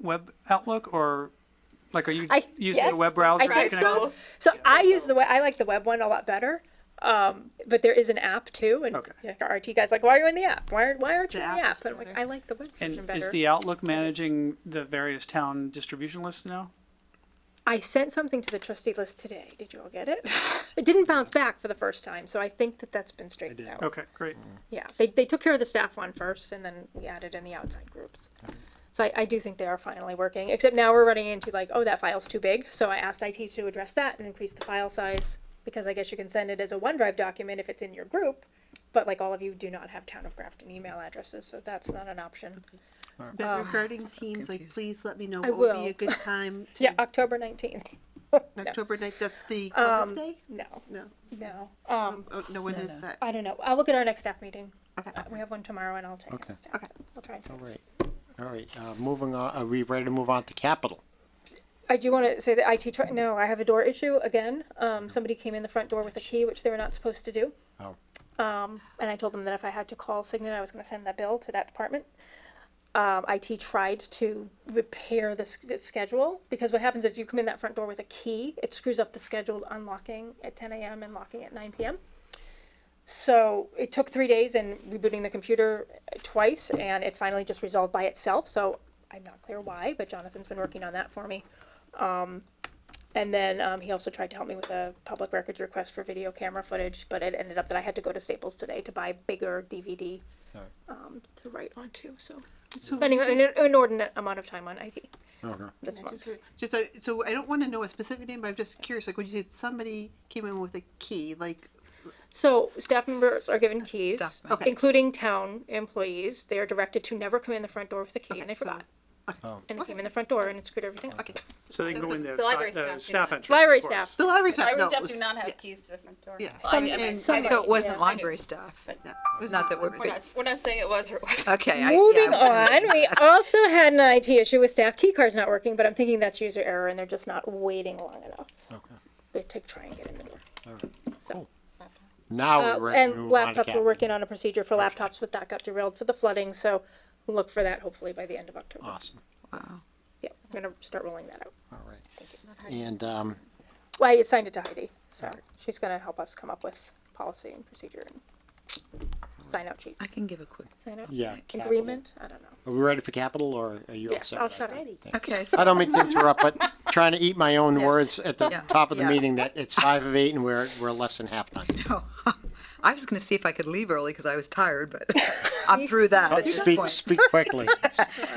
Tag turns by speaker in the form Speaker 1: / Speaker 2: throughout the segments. Speaker 1: web Outlook or like are you
Speaker 2: I-
Speaker 1: using
Speaker 2: yes,
Speaker 1: the web browser?
Speaker 2: I think
Speaker 1: to
Speaker 2: so.
Speaker 1: connect with?
Speaker 2: So I use the web. I like the web one a lot better. Um, but there is an app too, and
Speaker 1: Okay.
Speaker 2: like, our RT guys like, why are you in the app? Why are why aren't you
Speaker 3: The
Speaker 2: in the
Speaker 3: app
Speaker 2: app?
Speaker 3: is
Speaker 2: But I'm like,
Speaker 3: better.
Speaker 2: I like the web version
Speaker 1: And
Speaker 2: better.
Speaker 1: is the Outlook managing the various town distribution lists now?
Speaker 2: I sent something to the trustee list today. Did you all get it? it didn't bounce back for the first time, so I think that that's been straightened out.
Speaker 1: Okay, great.
Speaker 2: Yeah, they they took care of the staff one first, and then we added in the outside groups. So I, I do think they are finally working. Except now we're running into like, oh, that file's too big. So I asked IT to address that and increase the file size because I guess you can send it as a OneDrive document if it's in your group, but like all of you do not have town of Grafton email addresses, so that's not an option.
Speaker 3: But regarding teams, like, please let me know
Speaker 2: I
Speaker 3: what would be
Speaker 2: will.
Speaker 3: a good time to,
Speaker 2: Yeah, October nineteenth.
Speaker 3: October ninth, that's the Columbus Day?
Speaker 2: No,
Speaker 3: No,
Speaker 2: no. Um,
Speaker 3: oh, no, when is that?
Speaker 2: I don't know. I'll look at our next staff meeting.
Speaker 3: Okay.
Speaker 2: Uh, We have one tomorrow, and I'll check.
Speaker 4: Okay.
Speaker 2: next time.
Speaker 3: Okay.
Speaker 2: I'll try. And
Speaker 4: All right, all right, uh, moving on, are we ready to move on to capital?
Speaker 2: I do want to say that IT. Try- no, I have a door issue again. Um, somebody came in the front door with a key, which they were not supposed to do.
Speaker 4: Oh,
Speaker 2: And I told them that if I had to call Signet, I was going to send that bill to that department. Um, IT tried to repair the, s- the schedule because what happens if you come in that front door with a key, it screws up the scheduled unlocking at 10 a.m. and locking at 9 p.m. So it took three days and rebooting the computer uh, twice, and it finally just resolved by itself. So I'm not clear why, but Jonathan's been working on that for me. And then um, he also tried to help me with a public records request for video camera footage, but it ended up that I had to go to Staples today to buy bigger DVD
Speaker 4: Alright.
Speaker 2: um, to write onto. So
Speaker 3: So
Speaker 2: spending
Speaker 3: we-
Speaker 2: an inordinate amount of time on IT
Speaker 4: okay.
Speaker 2: this month.
Speaker 3: Just, just, uh, so I don't wanna know a specific name, but I'm just curious, like, when you said somebody came in with a key, like,
Speaker 2: So staff members are given keys,
Speaker 5: Staff
Speaker 3: members. Okay.
Speaker 2: including town employees. They are directed to never come in the front door with a key,
Speaker 3: Okay,
Speaker 2: and they
Speaker 3: so-
Speaker 2: forgot.
Speaker 4: Oh.
Speaker 2: And they came in the front door and it screwed everything up.
Speaker 3: okay.
Speaker 1: So they can go in the,
Speaker 5: The library
Speaker 1: si- the
Speaker 5: staff do
Speaker 1: uh, staff
Speaker 5: not.
Speaker 1: entrance.
Speaker 2: Library
Speaker 1: of course.
Speaker 2: staff.
Speaker 3: The library staff
Speaker 5: Library
Speaker 3: knows.
Speaker 5: staff do not
Speaker 3: Yeah,
Speaker 5: have keys to the front door.
Speaker 3: Yeah.
Speaker 5: Well, I mean,
Speaker 3: Some-
Speaker 5: I mean,
Speaker 3: and-
Speaker 5: I
Speaker 3: So
Speaker 5: know-
Speaker 6: So it wasn't
Speaker 5: yeah.
Speaker 6: library staff.
Speaker 3: but no, it was
Speaker 6: Not
Speaker 3: not
Speaker 6: that we're-
Speaker 3: library.
Speaker 5: We're not, we're not saying it was or it wasn't.
Speaker 6: Okay. I- yeah,
Speaker 2: Moving
Speaker 6: I was-
Speaker 2: on, we also had an IT issue with staff key cards not working, but I'm thinking that's user error and they're just not waiting long enough.
Speaker 4: Okay.
Speaker 2: They take try and get in the door.
Speaker 4: Now
Speaker 2: Uh,
Speaker 4: we're ready to
Speaker 2: and
Speaker 4: move on to
Speaker 2: laptops, we're
Speaker 4: capital.
Speaker 2: working on a procedure for laptops with that got derailed to the flooding, so look for that hopefully by the end of October.
Speaker 4: Awesome,
Speaker 2: Yeah, I'm gonna start rolling that out.
Speaker 4: all right. And, um,
Speaker 2: Well, I assigned it to Heidi, so she's gonna help us come up with policy and procedure and sign out sheet,
Speaker 6: I can give a quick.
Speaker 2: sign out
Speaker 4: yeah. capital.
Speaker 2: agreement, I don't know.
Speaker 4: Are we ready for capital or are you
Speaker 2: Yes,
Speaker 4: upset?
Speaker 2: I'll
Speaker 4: about
Speaker 2: shut
Speaker 4: that?
Speaker 2: up.
Speaker 6: Okay.
Speaker 4: I
Speaker 6: So,
Speaker 4: don't mean to interrupt, but trying to eat my own words at the
Speaker 6: Yeah.
Speaker 4: top of the
Speaker 6: Yeah.
Speaker 4: meeting that it's five of eight and we're, we're less than halftime.
Speaker 6: I was going to see if I could leave early because I was tired, but I'm through that at this
Speaker 4: Speak,
Speaker 6: point.
Speaker 4: speak quickly.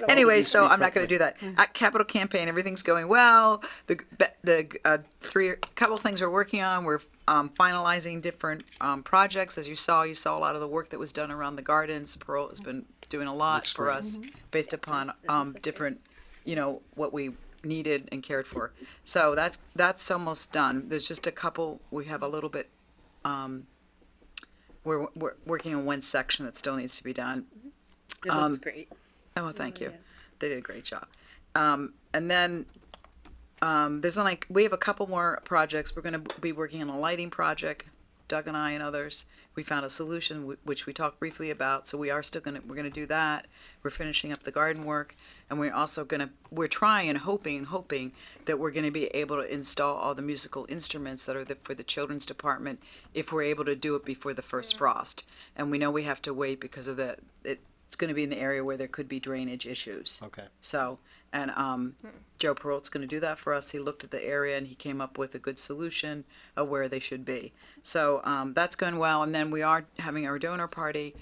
Speaker 6: anyway, so I'm not going to do that. At Capital Campaign, everything's going well. The the uh, three couple things we're working on. We're um, finalizing different um, projects. As you saw, you saw a lot of the work that was done around the gardens. Pearl has been doing a lot for us based upon um, different, you know, what we needed and cared for. So that's that's almost done. There's just a couple. We have a little bit um, we're, we're working on one section that still needs to be done.
Speaker 3: It looks great.
Speaker 6: Oh, well, thank you. They did a great job. Um, and then um, there's like we have a couple more projects. We're going to be working on a lighting project. Doug and I and others. We found a solution w- which we talked briefly about. So we are still going to we're going to do that. We're finishing up the garden work, and we're also going to we're trying and hoping and hoping that we're going to be able to install all the musical instruments that are the, for the children's department if we're able to do it before the first frost. And we know we have to wait because of the it, it's going to be in the area where there could be drainage issues.
Speaker 4: Okay.
Speaker 6: So, and um, Joe Peralt's going to do that for us. He looked at the area and he came up with a good solution of where they should be. So um, that's going well. And then we are having our donor party.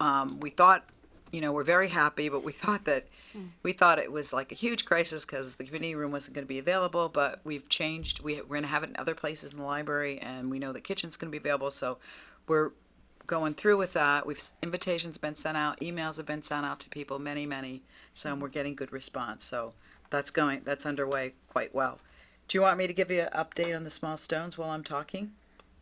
Speaker 6: Um, we thought, you know, we're very happy, but we thought that we thought it was like a huge crisis because the community room wasn't going to be available. But we've changed. We, we're going to have it in other places in the library, and we know the kitchen's going to be available. So we're going through with that. We've invitations been sent out, emails have been sent out to people, many, many. So we're getting good response. So that's going that's underway quite well. Do you want me to give you an update on the small stones while I'm talking?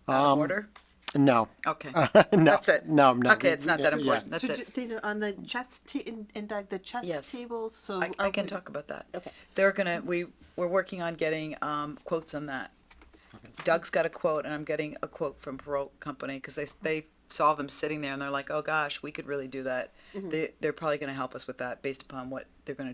Speaker 6: Out of order.
Speaker 4: No,
Speaker 6: Okay.
Speaker 4: Um, no.
Speaker 6: That's it.
Speaker 4: No, no.
Speaker 6: Okay, it's not that
Speaker 4: Yeah.
Speaker 6: important. That's
Speaker 3: So,
Speaker 6: it.
Speaker 3: ju- Dana, on the chess, ta- and, and Doug, the
Speaker 6: Yes.
Speaker 3: chess table, so.
Speaker 6: I,
Speaker 3: are
Speaker 6: I can
Speaker 3: we-
Speaker 6: talk about that.
Speaker 3: Okay.
Speaker 6: They're gonna, we, we're working on getting, um, quotes on that. Doug's got a quote and I'm getting a quote from Parole Company, cause they, s- they saw them
Speaker 3: Mm-hmm.
Speaker 6: sitting there and they're like, oh gosh, we could really do that. They, they're probably gonna help us with that based upon what they're gonna